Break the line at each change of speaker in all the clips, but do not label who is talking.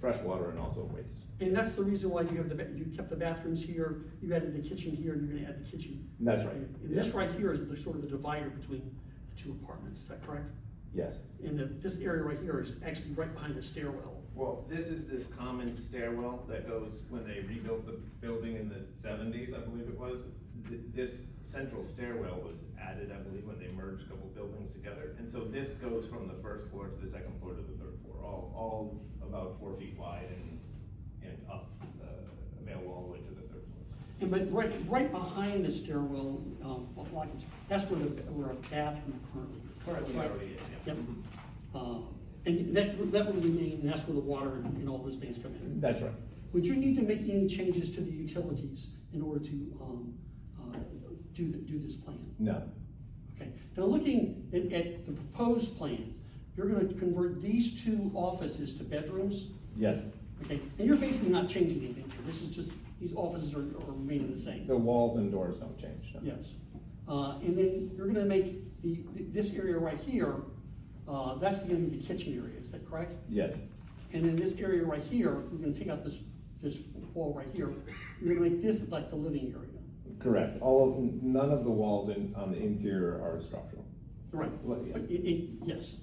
fresh water and also waste.
And that's the reason why you have the, ba- you kept the bathrooms here, you added the kitchen here, and you're gonna add the kitchen.
That's right.
And and this
Yeah.
right here is the sort of the divider between the two apartments, is that correct?
Yes,
And the, this area right here is actually right behind the stairwell.
Well, this is this common stairwell that goes, when they rebuilt the building in the seventies, I believe it was, th- this central stairwell was added, I believe, when they merged a couple buildings together. And so this goes from the first floor to the second floor to the third floor, all, all about four feet wide and, and up the mail wall way to the third floor.
And but right, right behind the stairwell, um, what block is, that's where the, where our bathroom currently is.
Currently
Right.
already is, yeah.
Yep. Uh, and that, that will remain, and that's where the water and and all those things come in.
that's right.
Would you need to make any changes to the utilities in order to, um, uh, do, the- do this plan?
No,
Okay, now looking at, at the proposed plan, you're gonna convert these two offices to bedrooms,
yes,
okay? And you're basically not changing anything here, this is just, these offices are, are remaining the same.
the walls and doors don't change, no.
Yes, uh, and then you're gonna make the, th- this area right here, uh, that's gonna be the kitchen area, is that correct?
Yes,
And then this area right here, we're gonna take out this, this wall right here, you're gonna make this like the living area.
correct. All of, none of the walls in, on the interior are structural.
Right,
Well, yeah.
But it- it- yes,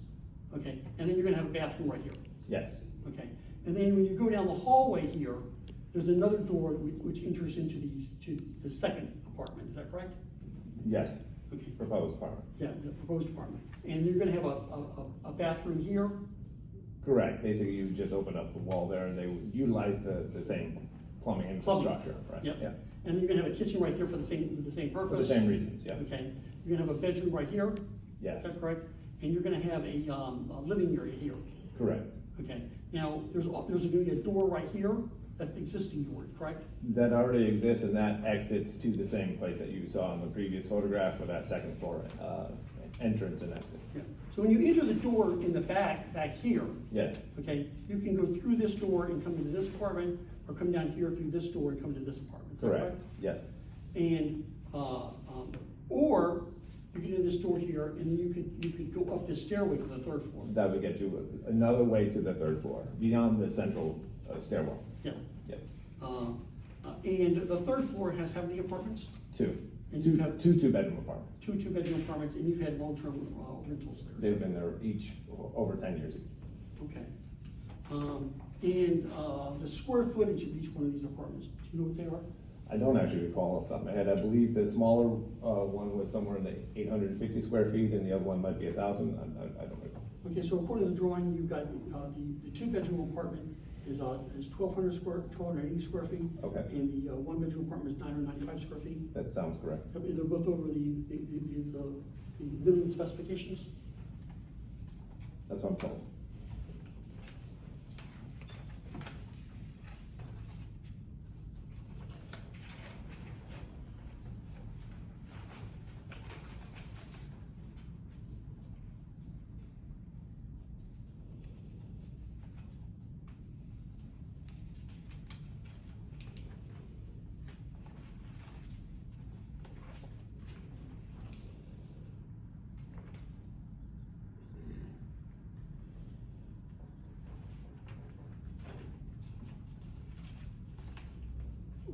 okay, and then you're gonna have a bathroom right here,
Yes,
okay? And then when you go down the hallway here, there's another door whi- which enters into these, to the second apartment, is that correct?
yes,
Okay,
proposed apartment.
yeah, the proposed apartment, and you're gonna have a, a, a- a bathroom here,
Correct, basically you just open up the wall there and they would utilize the, the same plumbing
Plumbing.
infrastructure, right?
Yep.
Yeah,
And then you're gonna have a kitchen right there for the same, for the same
for
purpose.
the same reasons, yeah,
Okay, you're gonna have a bedroom right here, is
yes,
that correct? And you're gonna have a, um, a living area here,
correct.
okay? Now, there's, al- there's gonna be a door right here, that's the existing door, correct?
That already exists and that exits to the same place that you saw in the previous photograph with that second floor, uh, entrance and exit.
Yeah. So when you enter the door in the back, back here,
Yes,
okay, you can go through this door and come into this apartment, or come down here through this door and come into this apartment, is that
correct, yes,
And, uh, um, or you can do this door here, and you could, you could go up this stairway to the third floor.
that would get you another way to the third floor, beyond the central uh, stairwell,
Yeah.
yep.
Uh, uh, And the third floor has how many apartments?
Two.
And
Two,
you have-
two two-bedroom apartments,
Two two-bedroom apartments, and you've had long-term uh, rentals there.
they've been there each o- over ten years each.
Okay. Um, And uh, the square footage of each one of these apartments, do you know what they are?
I don't actually recall off the top of my head. I believe the smaller uh, one was somewhere in the 850 square feet, and the other one might be a 1,000. I- I I don't recall.
Okay, so according to the drawing, you've got uh, the, the two-bedroom apartment is, uh, is twelve hundred square, twelve hundred eighty square feet.
Okay.
And the uh, one-bedroom apartment is nine hundred ninety-five square feet.
That sounds correct.
I mean, They're both over the, the, the- the, the minimum specifications.
That's what I'm told.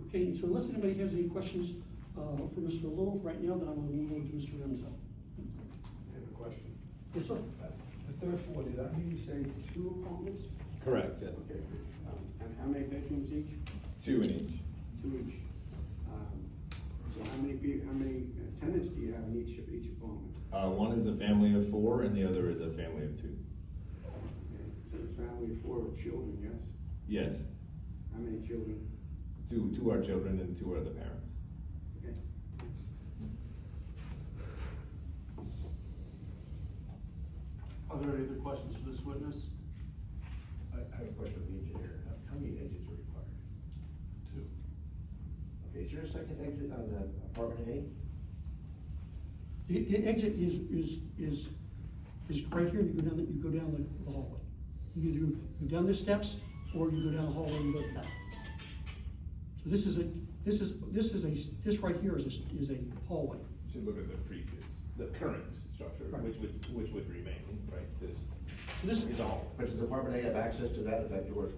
Okay, so unless anybody has any questions, uh, for Mr. Little right now, then I'm gonna move on to Mr. Remzo.
I have a question.
Yes, sir.
Uh, The third floor, did I hear you say two apartments?
Correct, yes.
Okay, um, and how many bedrooms each?
Two in each.
Two each. Um, So how many peo- how many uh, tenants do you have in each, each apartment?
Uh, One is a family of four, and the other is a family of two.
Okay, So it's family of four with children, yes?
Yes.
How many children?
Two two are children and two are the parents.
Okay. thanks.
Are there any other questions for this witness?
I I have a question for the engineer. How- How many exits are required?
Two.
Okay, is there a second exit on the apartment A?
The, the exit is, is, is, is right here, you go down, the- you go down the- the hallway. You either go down the steps, or you go down the hallway and go back. So this is a, this is, this is a, this right here is a, is a hallway.
Should look at the previous, the current structure,
Right.
which would, which would remain, right, this
So this,
is all.
But does apartment A have access to that if that door is